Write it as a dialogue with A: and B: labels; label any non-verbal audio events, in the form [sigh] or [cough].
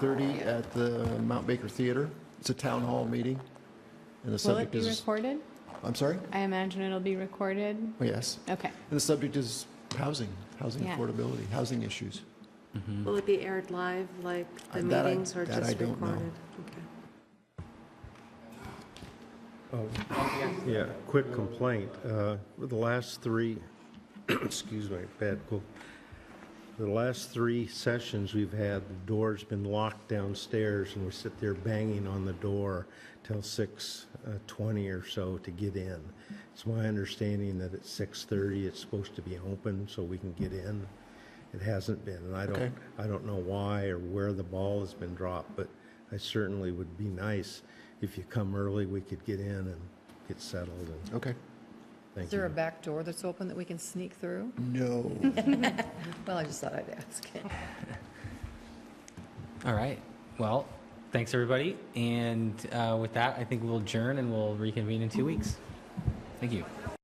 A: 6:30 at the Mount Baker Theater. It's a town hall meeting, and the
B: Will it
A: subject
B: be
A: is,
B: recorded?
A: I'm sorry?
B: I imagine it'll be recorded.
A: Oh, yes.
B: Okay.
A: And the subject is housing, housing
B: Yeah.
A: affordability, housing issues.
C: Will it be aired live, like the
A: Uh, that I-
C: meetings, or
A: that I
C: just
A: don't know.
C: recorded? Okay.
D: Yeah, quick complaint. Uh, The last three, [coughs] excuse me, bad cold. The last three sessions we've had, the door's been locked downstairs, and we sit there banging on the door till 6:20 or so to get in. It's my understanding that at 6:30, it's supposed to be open so we can get in. It hasn't been, and I
A: Okay.
D: don't, I don't know why or where the ball has been dropped, but I certainly would be nice if you come early, we could get in and get settled, and
A: Okay.
D: thank you.
E: Is there a back door that's open that we can sneak through?
A: No.
E: Well, I just thought I'd ask.
F: All right. Well, thanks, everybody. And uh, with that, I think we'll adjourn and we'll reconvene in two weeks. Thank you.